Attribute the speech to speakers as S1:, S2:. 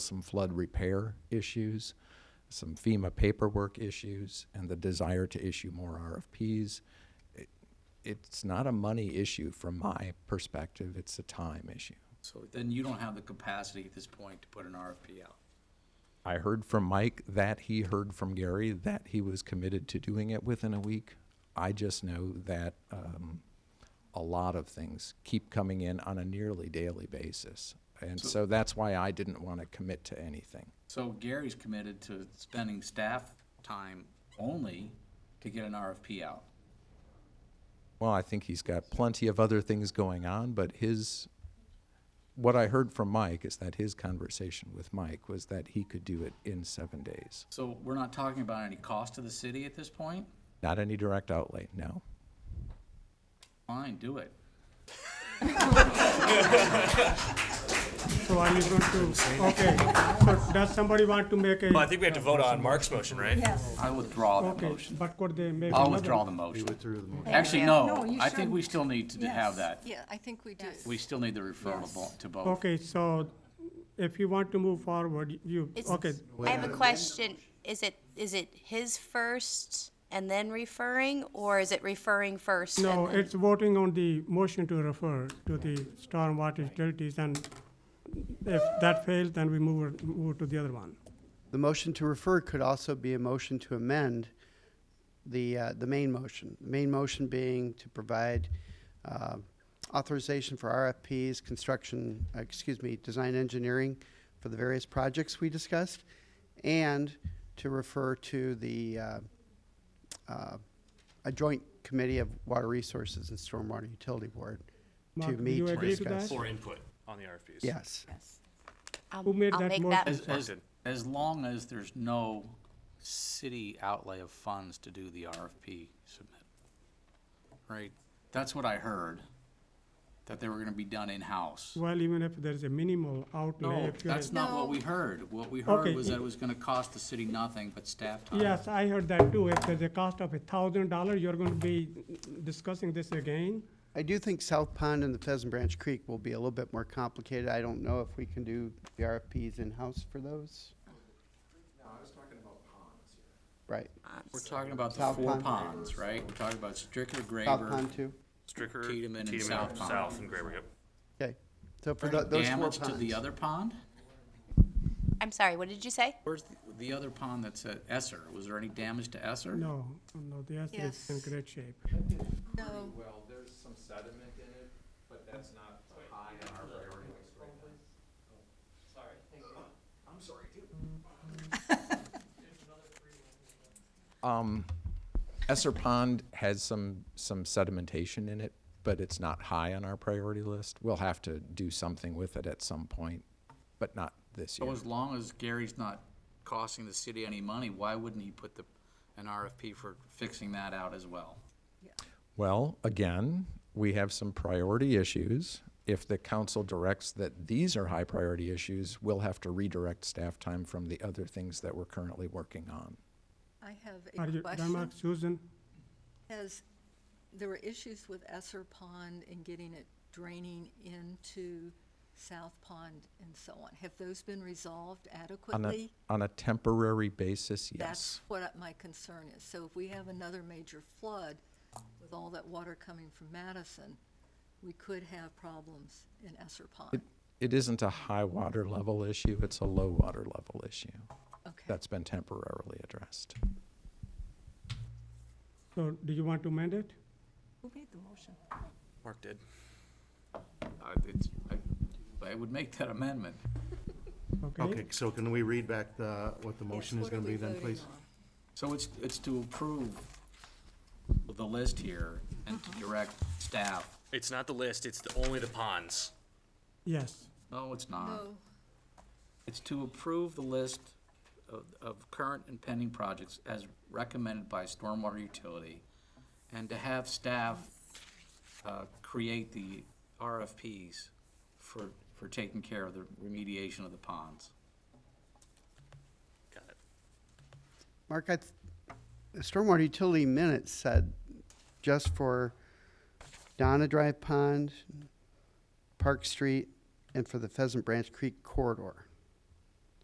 S1: some flood repair issues, some FEMA paperwork issues, and the desire to issue more RFPs. It- It's not a money issue from my perspective, it's a time issue.
S2: So then you don't have the capacity at this point to put an RFP out.
S1: I heard from Mike that he heard from Gary that he was committed to doing it within a week. I just know that um, a lot of things keep coming in on a nearly daily basis. And so that's why I didn't want to commit to anything.
S2: So Gary's committed to spending staff time only to get an RFP out.
S1: Well, I think he's got plenty of other things going on, but his, what I heard from Mike is that his conversation with Mike was that he could do it in seven days.
S2: So we're not talking about any cost to the city at this point?
S1: Not any direct outlay, no.
S2: Fine, do it.
S3: So I'm just going to, okay. So does somebody want to make
S4: Well, I
S3: a,
S4: think we have to vote on Mark's motion, right?
S5: Yes.
S2: I withdraw that
S3: okay,
S2: motion.
S3: but could they make?
S2: I'll
S3: another?
S2: withdraw the motion.
S5: Thank
S2: Actually,
S5: you.
S2: no,
S5: you
S2: I think
S5: shouldn't.
S2: we still need to
S5: Yes.
S2: have that.
S6: Yeah, I think we do.
S2: We still need the referral to vo- to vote.
S3: Okay, so if you want to move forward, you,
S7: It's-
S3: okay,
S7: I have a question. Is it, is it his first and then referring, or is it referring first? and
S3: no,
S7: then-
S3: it's voting on the motion to refer to the stormwater utilities and if that fails, then we move, move to the other one.
S8: The motion to refer could also be a motion to amend the, uh, the main motion. The main motion being to provide uh, authorization for RFPs, construction, uh, excuse me, design engineering for the various projects we discussed, and to refer to the, uh, uh, a joint committee of water resources and stormwater utility board to
S3: Mark, do
S8: meet
S3: you
S8: to
S3: agree to
S8: discuss.
S3: that?
S4: For input on the RFPs.
S8: Yes.
S7: I'll-
S3: who made
S7: I'll
S3: that
S7: make
S3: motion?
S2: As, as,
S4: Mark
S2: as long as there's no city outlay of funds to do the RFP submit. Right? That's what I heard, that they were gonna be done in-house.
S3: Well, even if there's a minimal outlay,
S2: No,
S3: if you're.
S2: that's not what we heard. What we heard
S3: Okay.
S2: was that it was gonna cost the city nothing but staff time.
S3: Yes, I heard that too. If there's a cost of a thousand dollar, you're going to be discussing this again.
S8: I do think South Pond and the Pheasant Branch Creek will be a little bit more complicated. I don't know if we can do the RFPs in-house for those. No, I was talking about ponds.
S2: We're talking about the
S8: South
S2: four
S8: Pond.
S2: ponds, right? We're talking about Stricker,
S8: Right, South
S2: Graver,
S8: Pond too?
S4: Stricker,
S2: Tiedemann and South
S4: Tiedemann,
S2: Pond.
S4: South, and Graber, yep.
S8: Okay, so for tho- those four
S2: damage
S8: ponds.
S2: to the other pond?
S7: I'm sorry, what did you say?
S2: Where's the- the other pond that's at Esser? Was there any damage to Esser?
S3: No, no, the answer is in
S6: Yes.
S3: great shape.
S6: No,
S1: Well, there's some sediment in it, but that's not high on our priority list right now. Um, Esser Pond has some, some sedimentation in it, but it's not high on our priority list. We'll have to do something with it at some point, but not this year.
S2: So as long as Gary's not costing the city any money, why wouldn't he put the, an RFP for fixing that out as well?
S1: Well, again, we have some priority issues. If the council directs that these are high priority issues, we'll have to redirect staff time from the other things that we're currently working on.
S6: I
S3: Are
S6: have a
S3: you,
S6: question.
S3: Denmark, Susan?
S6: Has, there were issues with Esser Pond and getting it draining into South Pond and so on. Have those been resolved
S1: On
S6: adequately?
S1: a, on a temporary basis, yes.
S6: That's what I- my concern is. So if we have another major flood with all that water coming from Madison, we could have problems in Esser Pond.
S1: It isn't a high water level issue, it's a low water level issue.
S6: Okay.
S1: That's been temporarily addressed.
S3: So do you want to amend it?
S6: Who made the motion?
S4: Mark did.
S2: Uh, it's, I, I would make that amendment.
S3: Okay.
S9: Okay, so can we read back the, what the motion
S6: Yes,
S9: is
S6: what are
S9: gonna
S6: we
S9: be then,
S6: voting
S9: please?
S6: on?
S2: So it's, it's to approve the list here and to direct staff.
S4: It's not the list, it's the, only the ponds.
S3: Yes.
S2: No, it's not.
S6: No,
S2: It's to approve the list of, of current and pending projects as recommended by Stormwater Utility and to have staff, uh, create the RFPs for, for taking care of the remediation of the ponds.
S4: Got it.
S8: Mark, I, th- the stormwater utility minutes said just for Donna Drive Pond, Park Street, and for the Pheasant Branch Creek corridor.